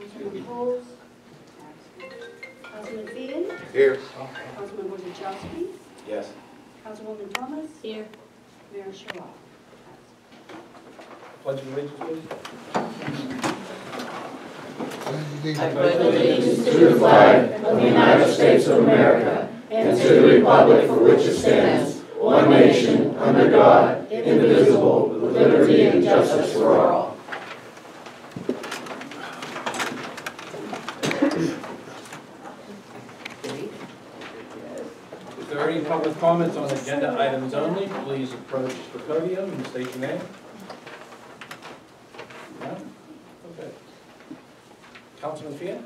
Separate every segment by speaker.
Speaker 1: Opposed? Councilman Finn,
Speaker 2: Here.
Speaker 1: Councilman Wozzachowski,
Speaker 2: Yes.
Speaker 1: Councilwoman Thomas,
Speaker 3: Here.
Speaker 1: Mayor Sherrod.
Speaker 4: Pledge of allegiance, please.
Speaker 3: I pledge allegiance to the flag of the United States of America and to the republic for which it stands, one nation, under God, indivisible, with liberty and justice for all.
Speaker 4: If there are any public comments on agenda items only, please approach the podium and state your name. None? Okay. Councilman Fian?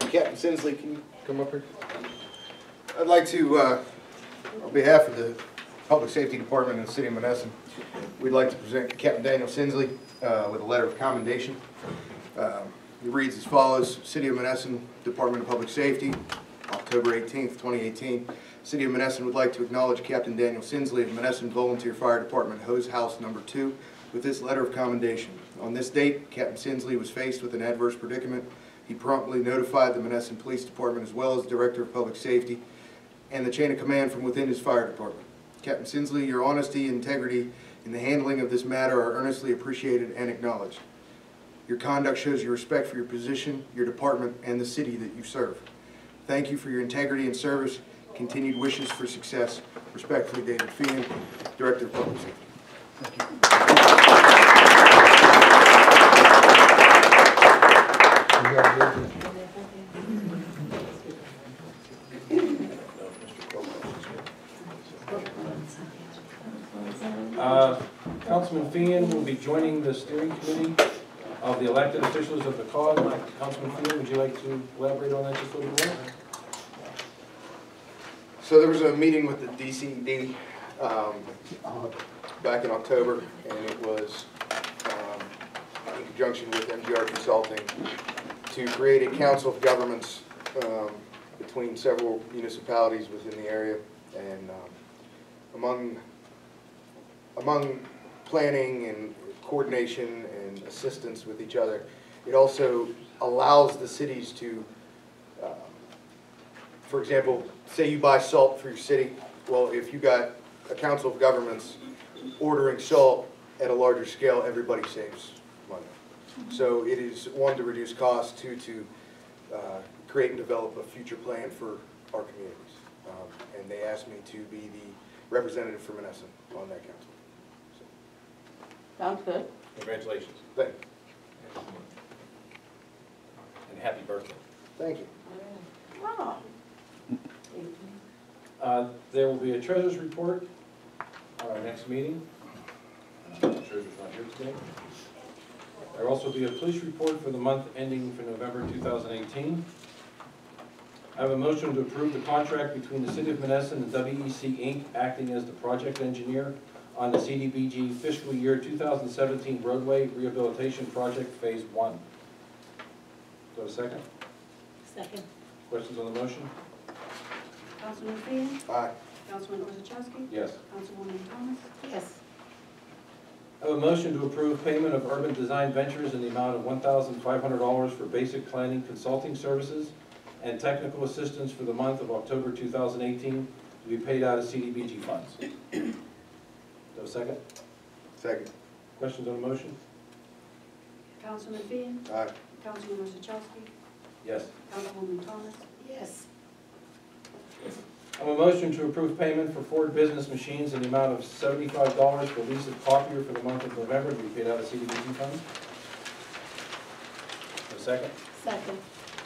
Speaker 2: Captain Sinsley, can you come up here? I'd like to, uh, on behalf of the Public Safety Department in the city of Menneson, we'd like to present Captain Daniel Sinsley uh, with a letter of commendation. Um, It reads as follows, City of Menneson, Department of Public Safety, October 18th, 2018. City of Menneson would like to acknowledge Captain Daniel Sinsley of Menneson Volunteer Fire Department Hose House Number Two with this letter of commendation. On this date, Captain Sinsley was faced with an adverse predicament. He promptly notified the Menneson Police Department as well as Director of Public Safety and the chain of command from within his fire department. Captain Sinsley, your honesty, integrity, and the handling of this matter are earnestly appreciated and acknowledged. Your conduct shows your respect for your position, your department, and the city that you serve. Thank you for your integrity and service. Continued wishes for success. Respectfully, David Feeney, Director of Public Safety.
Speaker 4: Uh, Councilman Fian will be joining the steering committee of the elected officials of the cause. Councilman Fian, would you like to elaborate on that just a little bit?
Speaker 2: So there was a meeting with the DCD um, back in October, and it was um, in conjunction with MGR Consulting to create a council of governments um, between several municipalities within the area. And um, among, among planning and coordination and assistance with each other, it also allows the cities to um, for example, say you buy salt for your city, well, if you got a council of governments ordering salt at a larger scale, everybody saves money. So it is, one, to reduce costs, two, to uh, create and develop a future plan for our communities. Um, And they asked me to be the representative for Menneson on that council. So,
Speaker 3: Sounds good.
Speaker 4: Congratulations.
Speaker 2: Thank, you.
Speaker 4: And happy birthday.
Speaker 2: thank you.
Speaker 3: Wow.
Speaker 4: Uh, There will be a treasurer's report on our next meeting. Uh, Treasurer's not here today. There will also be a police report for the month ending for November 2018. I have a motion to approve the contract between the City of Menneson and WEC Inc. acting as the project engineer on the CDBG fiscal year 2017 roadway rehabilitation project phase one. Do I have a second?
Speaker 3: Second.
Speaker 4: Questions on the motion?
Speaker 1: Councilman Finn,
Speaker 2: Aye.
Speaker 1: Councilman Wozzachowski,
Speaker 4: Yes.
Speaker 1: Councilwoman Thomas,
Speaker 3: Yes.
Speaker 4: I have a motion to approve payment of Urban Design Ventures in the amount of $1,500 for basic planning consulting services and technical assistance for the month of October 2018 to be paid out of CDBG funds. Do I have a second?
Speaker 2: Second.
Speaker 4: Questions on the motion?
Speaker 1: Councilman Finn,
Speaker 2: Aye.
Speaker 1: Councilman Wozzachowski,
Speaker 4: Yes.
Speaker 1: Councilwoman Thomas,
Speaker 3: Yes.
Speaker 4: I have a motion to approve payment for Ford Business Machines in the amount of $75 for lease of copier for the month of November to be paid out of CDBG funds. Do I have a second?
Speaker 3: Second.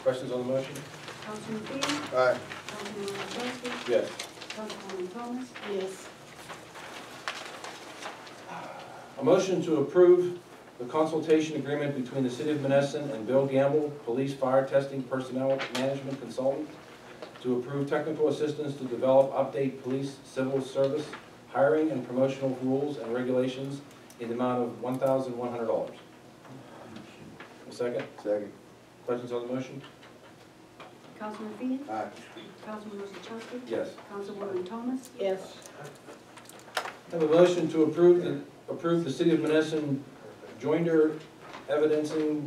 Speaker 4: Questions on the motion?
Speaker 1: Councilman Finn,
Speaker 2: Aye.
Speaker 1: Councilman Wozzachowski,
Speaker 4: Yes.
Speaker 1: Councilwoman Thomas,
Speaker 3: Yes.
Speaker 4: A motion to approve the consultation agreement between the City of Menneson and Bill Gamble, Police Fire Testing Personnel Management Consultant, to approve technical assistance to develop, update police civil service hiring and promotional rules and regulations in the amount of one thousand one hundred dollars. A second?
Speaker 2: Second.
Speaker 4: Questions on the motion?
Speaker 1: Councilman Finn,
Speaker 2: Aye.
Speaker 1: Councilman Wozzachowski,
Speaker 4: Yes.
Speaker 1: Councilwoman Thomas,
Speaker 3: Yes.
Speaker 4: Have a motion to approve the, approve the City of Menneson joinder evidencing